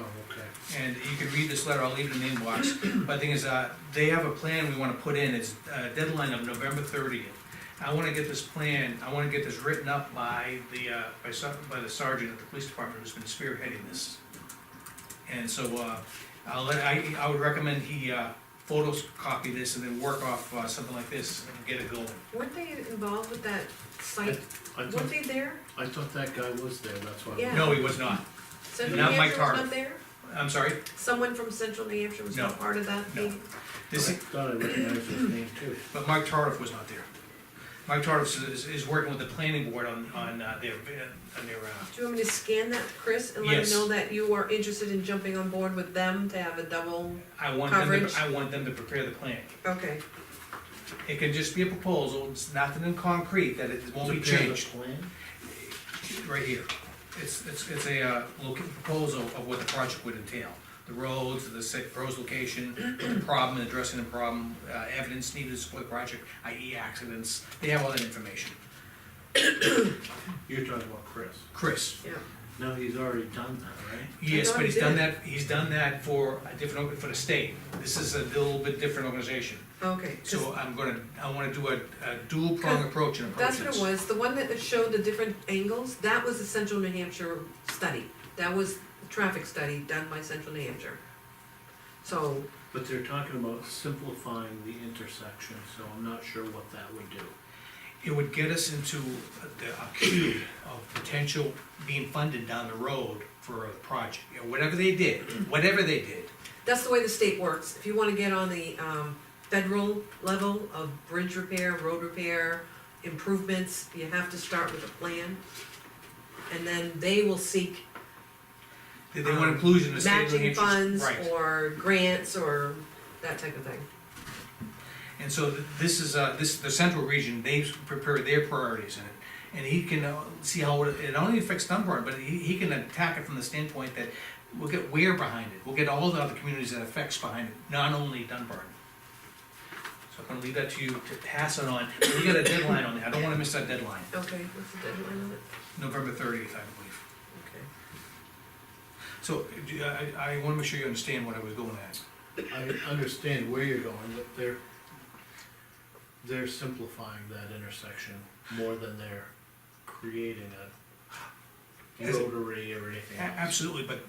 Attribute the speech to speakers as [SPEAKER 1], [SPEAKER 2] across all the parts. [SPEAKER 1] Oh,
[SPEAKER 2] and you can read this letter, I'll leave it in the inbox. But the thing is, uh, they have a plan we wanna put in, it's a deadline of November thirtieth. I wanna get this plan, I wanna get this written up by the, uh, by some, by the sergeant at the police department who's been spearheading this. And so, uh, I'll let, I, I would recommend he, uh, photocopy this and then work off, uh, something like this and get it going.
[SPEAKER 3] Weren't they involved with that site?
[SPEAKER 1] I
[SPEAKER 3] Weren't
[SPEAKER 1] thought,
[SPEAKER 3] they there?
[SPEAKER 1] I thought that guy was there, that's why.
[SPEAKER 3] Yeah.
[SPEAKER 2] No, he was not,
[SPEAKER 3] Central
[SPEAKER 2] Not
[SPEAKER 3] New
[SPEAKER 2] my
[SPEAKER 3] Hampshire was
[SPEAKER 2] car.
[SPEAKER 3] not there?
[SPEAKER 2] I'm sorry,
[SPEAKER 3] Someone from Central New Hampshire was
[SPEAKER 2] No.
[SPEAKER 3] not part of that
[SPEAKER 2] No.
[SPEAKER 3] meeting?
[SPEAKER 1] But I
[SPEAKER 2] this,
[SPEAKER 1] thought I recognized his name too.
[SPEAKER 2] But Mike Tardif was not there. Mike Tardif is, is working with the planning board on, on uh, their, on their, uh,
[SPEAKER 3] Do you want me to scan that, Chris, and let
[SPEAKER 2] Yes.
[SPEAKER 3] him know that you are interested in jumping on board with them to have a double?
[SPEAKER 2] I want them,
[SPEAKER 3] Coverage.
[SPEAKER 2] to- I want them to prepare the plan.
[SPEAKER 3] Okay,
[SPEAKER 2] It can just be a proposal, it's nothing in concrete, that it won't be
[SPEAKER 1] Prepare the
[SPEAKER 2] changed,
[SPEAKER 1] plan?
[SPEAKER 2] right here. It's, it's, it's a, uh, loca- proposal of what the project would entail. The roads, the sa- roads location, the problem, addressing the problem, uh, evidence needed to support the project, i.e. accidents, they have all that information.
[SPEAKER 1] You're talking about Chris.
[SPEAKER 2] Chris?
[SPEAKER 3] yeah.
[SPEAKER 1] No, he's already done that, right?
[SPEAKER 2] Yes,
[SPEAKER 3] thought
[SPEAKER 2] but
[SPEAKER 3] he
[SPEAKER 2] he's done
[SPEAKER 3] did.
[SPEAKER 2] that, he's done that for a different, org- for the state. This is a little bit different organization.
[SPEAKER 3] Okay, 'cause
[SPEAKER 2] So oh, I'm gonna, I wanna do a, a dual prong approach in approaches.
[SPEAKER 3] that's what it was, the one that showed the different angles, that was the Central New Hampshire study. That was the traffic study done by Central New Hampshire. So,
[SPEAKER 1] But they're talking about simplifying the intersection, so I'm not sure what that would do.
[SPEAKER 2] It would get us into the, a queue of potential being funded down the road for a project, You know, whatever they did, whatever they did.
[SPEAKER 3] That's the way the state works. If you wanna get on the, um, federal level of bridge repair, road repair, improvements, you have to start with a plan. And then they will seek
[SPEAKER 2] Did they want
[SPEAKER 3] Um,
[SPEAKER 2] inclusion in the state of New
[SPEAKER 3] matching
[SPEAKER 2] Hampshire's-
[SPEAKER 3] funds
[SPEAKER 2] Right.
[SPEAKER 3] or grants or that type of thing.
[SPEAKER 2] And so th- this is, uh, this, the central region, they've prepared their priorities in it. And he can uh, see how it it only affects Dunbar, but he, he can attack it from the standpoint that we'll get Ware behind it, we'll get all the other communities that affects behind it, not only Dunbar. So I'm gonna leave that to you to pass it on, but we got a deadline on that, I don't wanna miss that deadline,
[SPEAKER 3] Okay, what's the deadline on it?
[SPEAKER 2] November thirtieth, I believe.
[SPEAKER 3] Okay.
[SPEAKER 2] So, do you- I, I wanna make sure you understand what I was going at.
[SPEAKER 1] I understand where you're going, but they're, they're simplifying that intersection more than they're creating a
[SPEAKER 2] Is it-
[SPEAKER 1] rotary or anything
[SPEAKER 2] A-
[SPEAKER 1] else.
[SPEAKER 2] Absolutely, but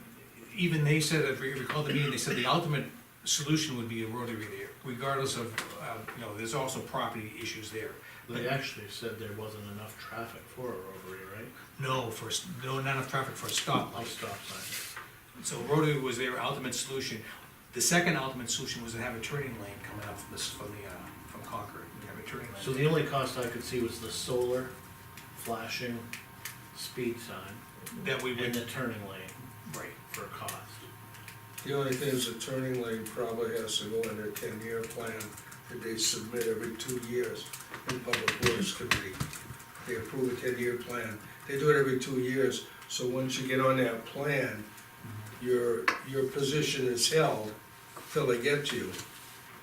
[SPEAKER 2] even they said, if you recall the meeting, they said the ultimate solution would be a rotary there, regardless of, uh, you know, there's also property issues there.
[SPEAKER 1] They actually said there wasn't enough traffic for a rotary, right?
[SPEAKER 2] No, for, s- no, not enough traffic for a stoplight.
[SPEAKER 1] I'll stop sign.
[SPEAKER 2] So rotary was their ultimate solution. The second ultimate solution was to have a turning lane coming up from this, from the, uh, from Concord, and have a turning
[SPEAKER 1] So
[SPEAKER 2] lane.
[SPEAKER 1] the only cost I could see was the solar flashing speed sign
[SPEAKER 2] That we
[SPEAKER 1] and
[SPEAKER 2] would,
[SPEAKER 1] the turning lane
[SPEAKER 2] right,
[SPEAKER 1] for cost.
[SPEAKER 4] The only thing is the turning lane probably has to go in their ten-year plan that they submit every two years in Public Works Committee. They approve a ten-year plan. They do it every two years, so once you get on that plan, your, your position is held till they get to you.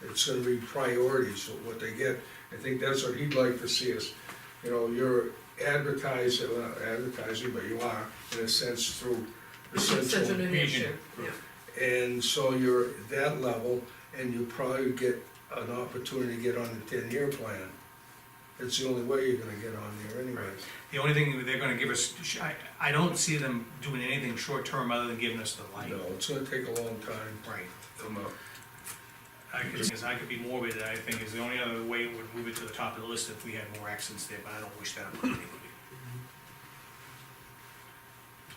[SPEAKER 4] It's gonna be priorities of what they get. I think that's what he'd like to see is, you know, you're advertising, well, not advertising, but you are, in a sense, through the
[SPEAKER 3] Central New
[SPEAKER 2] region.
[SPEAKER 3] Hampshire, yeah.
[SPEAKER 4] and so you're at that level, and you probably get an opportunity to get on the ten-year plan. It's the only way you're gonna get on there anyways.
[SPEAKER 2] The only thing they're gonna give us, sh- I, I don't see them doing anything short-term other than giving us the light.
[SPEAKER 4] No, it's gonna take a long time
[SPEAKER 2] Right.
[SPEAKER 4] to come up.
[SPEAKER 2] I could, because I could be morbid, I think, is the only other way it would move it to the top of the list if we had more accidents there, but I don't wish that upon anybody.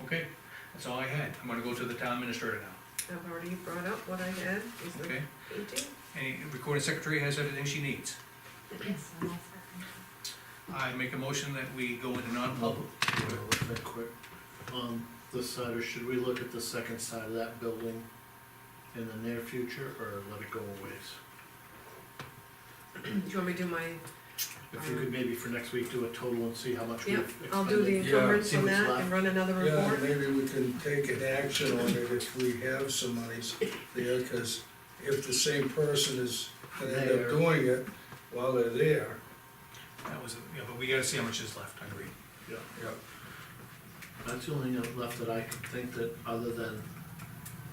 [SPEAKER 2] Okay, that's all I had, I'm gonna go to the town administrator now,
[SPEAKER 3] I've already brought up what I had, is the
[SPEAKER 2] okay?
[SPEAKER 3] painting.
[SPEAKER 2] Any recording secretary has everything she needs.
[SPEAKER 5] Yes, I'm all for
[SPEAKER 2] I make a motion that we go into non-public.
[SPEAKER 1] Wanna look that quick? Um, this side, or should we look at the second side of that building in the near future, or let it go a ways?
[SPEAKER 3] Do you want me to do my,
[SPEAKER 1] If you could maybe for next week do a total and see how much we've
[SPEAKER 3] yeah,
[SPEAKER 1] expended.
[SPEAKER 3] I'll do the
[SPEAKER 4] Yeah,
[SPEAKER 3] encumbrance
[SPEAKER 1] see
[SPEAKER 3] on
[SPEAKER 1] what's
[SPEAKER 3] that
[SPEAKER 1] left.
[SPEAKER 3] and run another
[SPEAKER 4] Yeah,
[SPEAKER 3] report?
[SPEAKER 4] maybe we can take an action on it if we have some monies there, cause if the same person is gonna end up
[SPEAKER 1] There.
[SPEAKER 4] doing it while they're there,
[SPEAKER 2] That was, yeah, but we gotta see how much is left, I agree.
[SPEAKER 1] Yeah,
[SPEAKER 4] yeah.
[SPEAKER 1] That's the only thing left that I can think that, other than